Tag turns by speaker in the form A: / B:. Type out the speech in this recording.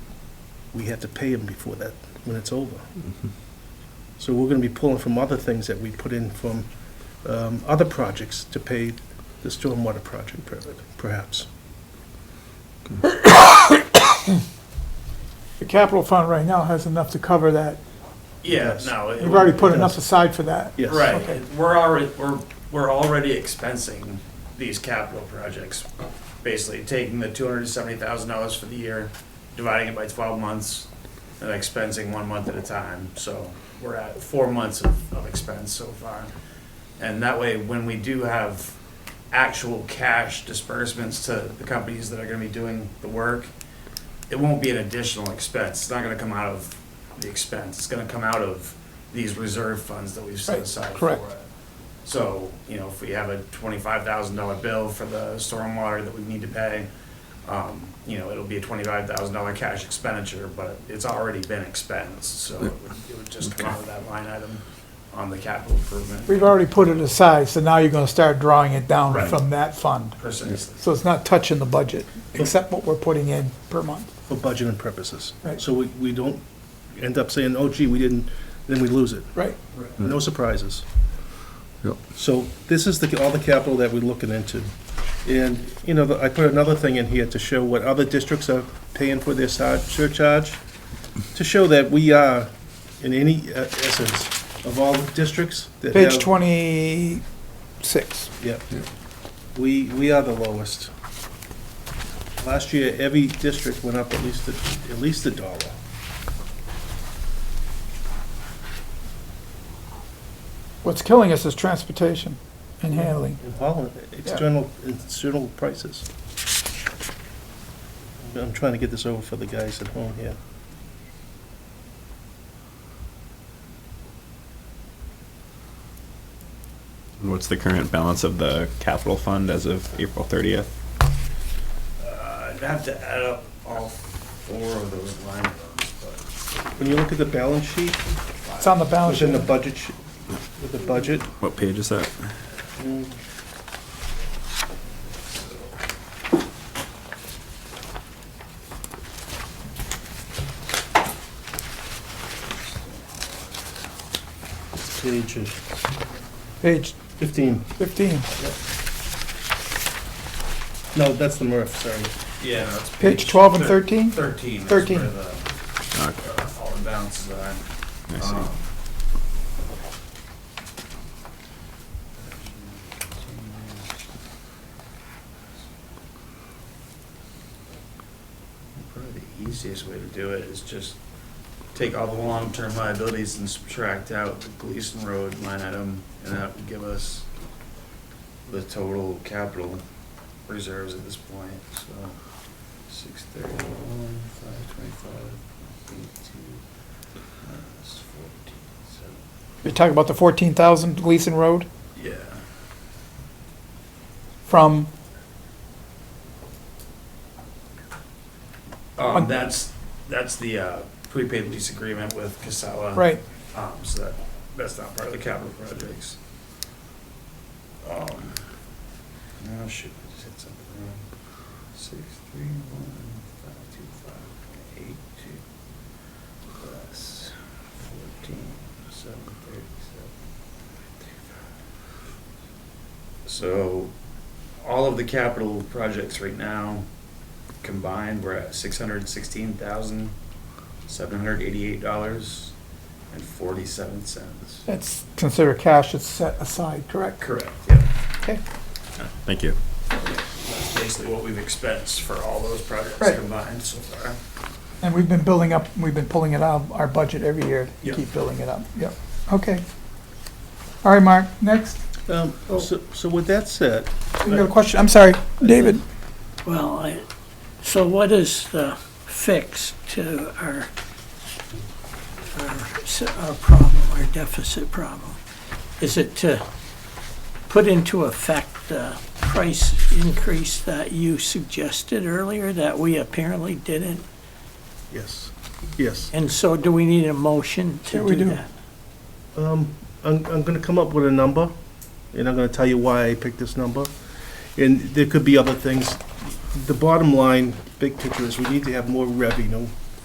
A: we have to pay them before that, when it's over. So we're gonna be pulling from other things that we put in from um, other projects to pay the stormwater project permit, perhaps.
B: The capital fund right now has enough to cover that.
C: Yeah,
A: Yes.
C: no. it
B: You've already put
C: would-
B: enough aside for that.
A: Yes.
B: Okay.
C: Right, we're already, we're, we're already expensing these capital projects. Basically, taking the two hundred and seventy thousand dollars for the year, dividing it by twelve months, and expensing one month at a time. So we're at four months of, of expense so far. And that way, when we do have actual cash disbursements to the companies that are gonna be doing the work, it won't be an additional expense. It's not gonna come out of the expense. It's gonna come out of these reserve funds that we've set
B: Right,
C: aside for it.
B: correct.
C: So, you know, if we have a twenty-five thousand dollar bill for the stormwater that we need to pay, um, you know, it'll be a twenty-five thousand dollar cash expenditure, but it's already been expensed, so it would- it would just come out of that line item on the capital improvement.
B: We've already put it aside, so now you're gonna start drawing it down
C: Right.
B: from that fund.
C: Precisely.
B: So it's not touching the budget, except what we're putting in per month.
A: For budgeting purposes.
B: Right.
A: So we, we don't end up saying, oh gee, we didn't, then we lose it.
B: Right,
A: No surprises.
D: Yep.
A: So this is the, all the capital that we're looking into. And, you know, I put another thing in here to show what other districts are paying for their sar- surcharge, to show that we are, in any uh, essence, of all the districts that have.
B: page twenty-six.
A: Yep. We, we are the lowest. Last year, every district went up at least, a- at least a dollar.
B: What's killing us is transportation and handling.
A: In Holland, external, external prices. I'm trying to get this over for the guys at home here.
E: What's the current balance of the capital fund as of April 30th?
C: Uh, I'd have to add up all four of those line items, but
A: When you look at the balance sheet,
B: It's on the balance
A: within
B: sheet.
A: the budget, sh- with the budget,
E: What page is that?
A: it's page
B: Page
A: fifteen.
B: fifteen,
A: No, that's the Murph, sorry.
C: yeah, no, it's
B: page twelve and
C: thir-
B: thirteen?
C: Thirteen. is
B: 13.
C: where the- uh, All the balances are.
E: I see.
C: Um, Probably the easiest way to do it is just take all the long-term liabilities and subtract out the Gleason Road line item, and that would give us the total capital reserves at this point, so six thirty-one, five twenty-five, eighty-two, minus fourteen, so.
B: You're talking about the fourteen thousand Gleason Road
C: Yeah.
B: from,
C: Um,
B: On-
C: that's, that's the, uh, prepaid lease agreement with Casella.
B: right,
C: Um, so that, that's not part of the capital projects. Um, no, shoot, I just hit something wrong. Six, three, one, five, two, five, eight, two, plus fourteen, seven, thirty-seven. So, all of the capital projects right now combined, we're at six hundred sixteen thousand, seven hundred eighty-eight dollars and forty-seven cents.
B: that's considered cash, it's set aside, correct?
C: Correct, yeah.
B: Okay,
E: Thank you.
C: That's basically what we've expensed for all those projects
B: Right.
C: combined so far.
B: and we've been building up, we've been pulling it out of our budget every year, to
C: Yeah.
B: keep building it up, yep, okay. All right, Mark, next,
A: Um, so, so with that said,
B: you got a question, I'm sorry, David,
F: Well, I, so what is the fix to our, our, s- our problem, our deficit problem? Is it to put into effect the price increase that you suggested earlier that we apparently didn't?
A: yes, yes.
F: And so do we need a motion
B: Yeah,
F: to
B: we
F: do
B: do.
F: that?
A: Um, I'm, I'm gonna come up with a number, and I'm gonna tell you why I picked this number. And there could be other things. The bottom line, big picture is we need to have more revenue